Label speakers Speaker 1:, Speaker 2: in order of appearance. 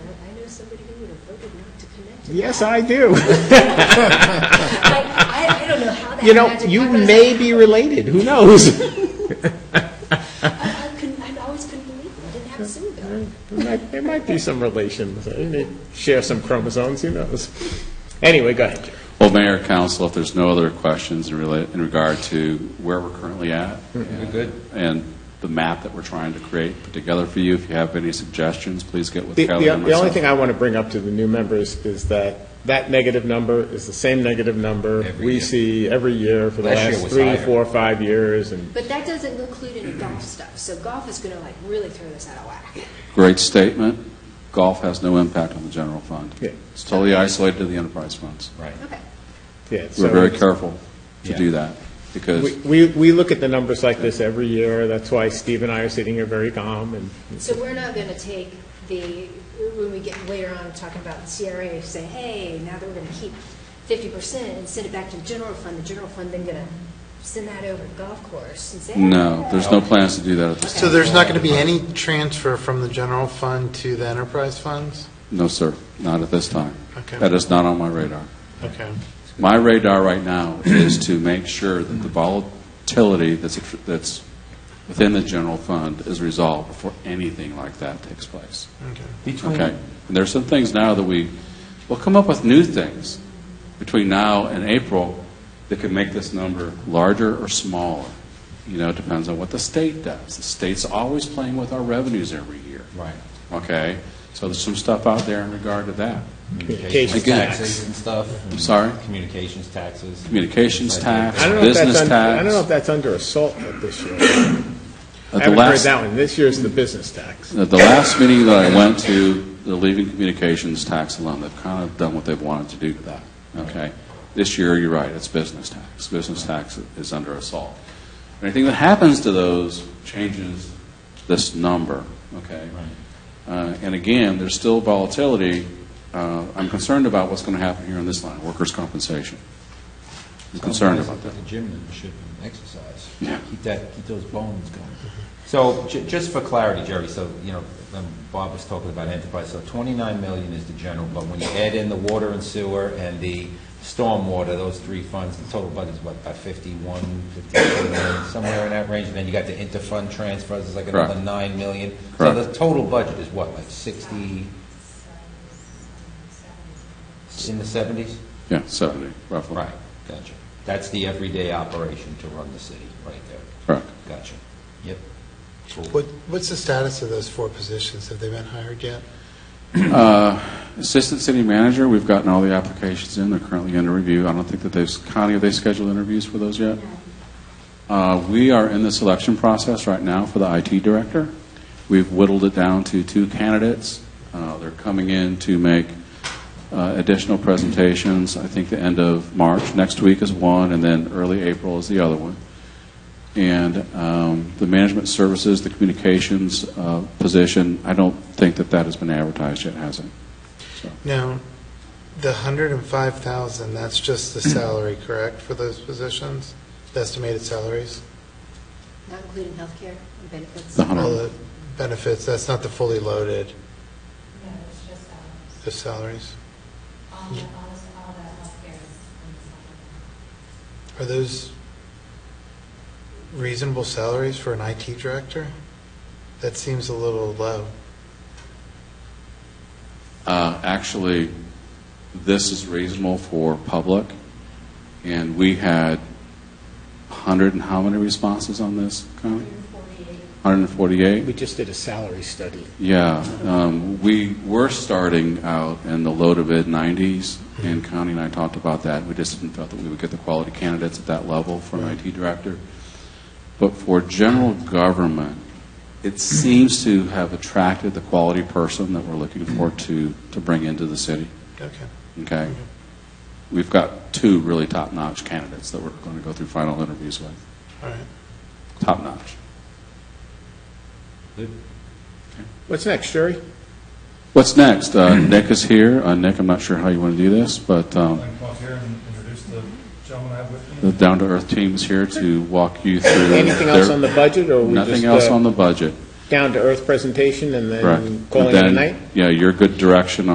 Speaker 1: somebody who would have voted not to connect to that.
Speaker 2: Yes, I do.
Speaker 1: I, I- I don't know how that
Speaker 2: You know,
Speaker 1: magic
Speaker 2: you
Speaker 1: happens.
Speaker 2: may be related, who knows?
Speaker 1: I, I couldn't, I always couldn't believe it, I didn't have a sewer bill.
Speaker 2: There might- there might be some relation, They may share some chromosomes, who knows? Anyway, go ahead, Jerry.
Speaker 3: Well, Mayor, Council, if there's no other questions in rela- in regard to where we're currently at. We're good. And the map that we're trying to create, put together for you, if you have any suggestions, please get with
Speaker 2: The,
Speaker 3: Kelly
Speaker 2: the
Speaker 3: and
Speaker 2: the only
Speaker 3: myself.
Speaker 2: thing I want to bring up to the new members is that that negative number is the same negative number
Speaker 4: Every
Speaker 2: we
Speaker 4: year.
Speaker 2: see every year for the
Speaker 4: Last year
Speaker 2: last
Speaker 4: was
Speaker 2: three,
Speaker 4: higher.
Speaker 2: four, five years, and
Speaker 1: But that doesn't include any golf stuff, so golf is gonna like really throw this out of whack.
Speaker 3: Great statement. Golf has no impact on the general fund.
Speaker 2: Yeah.
Speaker 3: It's totally isolated to the enterprise funds.
Speaker 4: Right.
Speaker 1: Okay,
Speaker 2: yeah. so
Speaker 3: We're very
Speaker 2: it's-
Speaker 3: careful to
Speaker 4: Yeah.
Speaker 3: do that, because
Speaker 2: We, we we look at the numbers like this every year, that's why Steve and I are sitting here very calm, and
Speaker 1: so we're not gonna take the, when we get later on talking about the CRA, say, hey, now that we're gonna keep fifty percent and send it back to the general fund, the general fund then gonna send that over to golf course and say.
Speaker 3: no,
Speaker 1: "Hey."
Speaker 3: there's no plans to do that at this
Speaker 5: So
Speaker 3: time.
Speaker 5: there's not going to be any transfer from the general fund to the enterprise funds?
Speaker 3: No, sir, not at this time.
Speaker 5: Okay.
Speaker 3: That is not on my radar.
Speaker 5: Okay.
Speaker 3: My radar right now is to make sure that the volatility that's, that's within the general fund is resolved before anything like that takes place.
Speaker 5: Okay.
Speaker 3: Okay? And there's some things now that we, we'll come up with new things between now and April that can make this number larger or smaller. You know, it depends on what the state does. The state's always playing with our revenues every year.
Speaker 4: Right.
Speaker 3: Okay? So there's some stuff out there in regard to that.
Speaker 2: Communications
Speaker 4: Communications
Speaker 3: tax.
Speaker 4: taxes and stuff.
Speaker 3: I'm sorry?
Speaker 4: Communications taxes.
Speaker 3: Communications
Speaker 4: Like,
Speaker 3: tax.
Speaker 2: I don't know if that's,
Speaker 3: Business
Speaker 2: under- I don't know
Speaker 3: tax.
Speaker 2: if that's under assault this year.
Speaker 3: At
Speaker 2: I
Speaker 3: the
Speaker 2: haven't heard
Speaker 3: last-
Speaker 2: that one, this year's the business tax.
Speaker 3: At the last meeting that I went to, the leaving communications tax alone, they've kind of done what they've wanted to do to that, okay? This year, you're right, it's business tax. Business tax is under assault. Anything that happens to those changes this number, okay? Uh, And again, there's still volatility. Uh, I'm concerned about what's going to happen here on this line, workers' compensation. I'm concerned
Speaker 4: Sometimes
Speaker 3: about that.
Speaker 4: at The gym membership and exercise.
Speaker 3: Yeah.
Speaker 4: Keep that, keep those bones going. So ju- just for clarity, Jerry, so, you know, when Bob was talking about enterprise, so 29 million is the general, but when you add in the water and sewer and the stormwater, those three funds, the total budget's what, about 51, 52 million, somewhere in that range, and then you got the interfund transfers, it's like another
Speaker 3: Correct.
Speaker 4: 9 million.
Speaker 3: Correct.
Speaker 4: So the total budget is what, like 60, in the 70s?
Speaker 3: Yeah, 70, roughly.
Speaker 4: Right, gotcha. That's the everyday operation to run the city, right there.
Speaker 3: Correct.
Speaker 4: Gotcha. Yep.
Speaker 5: What, what's the status of those four positions? Have they been hired yet?
Speaker 3: Uh, Assistant City Manager, we've gotten all the applications in, they're currently under review. I don't think that they've, Connie, have they scheduled interviews for those yet? Uh, We are in the selection process right now for the IT Director. We've whittled it down to two candidates. Uh, They're coming in to make uh, additional presentations. I think the end of March, next week is one, and then early April is the other one. And um, the management services, the communications uh, position, I don't think that that has been advertised yet, has it?
Speaker 5: Now, the 105,000, that's just the salary, correct, for those positions? The Estimated salaries?
Speaker 1: Not including healthcare and benefits.
Speaker 3: The
Speaker 5: All
Speaker 3: hundred,
Speaker 5: the benefits, that's not the fully loaded,
Speaker 6: No, it's just, um,
Speaker 5: the salaries?
Speaker 6: all the, all the, all the healthcare is on the supplement.
Speaker 5: Are those reasonable salaries for an IT director? That seems a little low.
Speaker 3: uh, actually, this is reasonable for public, and we had hundred and how many responses on this, Connie? Hundred and forty-eight?
Speaker 2: We just did a salary study.
Speaker 3: Yeah, um, we were starting out in the low to mid 90s, and Connie and I talked about that. We just didn't feel that we would get the quality candidates at that level for an IT director. But for general government, it seems to have attracted the quality person that we're looking for to, to bring into the city.
Speaker 5: Okay.
Speaker 3: Okay? We've got two really top notch candidates that we're going to go through final interviews with.
Speaker 5: All right.
Speaker 3: Top notch.
Speaker 2: What's next, Jerry?
Speaker 3: What's next? Uh, Nick is here. Uh, Nick, I'm not sure how you want to do this, but.
Speaker 7: I'd
Speaker 3: Um,
Speaker 7: like to come up here and introduce the gentleman I have with me.
Speaker 3: The Down to Earth team is here to walk you through.
Speaker 2: Anything else
Speaker 3: their-
Speaker 2: on the budget, or we just
Speaker 3: Nothing else on
Speaker 2: uh,
Speaker 3: the budget,
Speaker 2: down-to-earth presentation and
Speaker 3: correct.
Speaker 2: then calling it a
Speaker 3: Then,
Speaker 2: night?
Speaker 3: Yeah, your good direction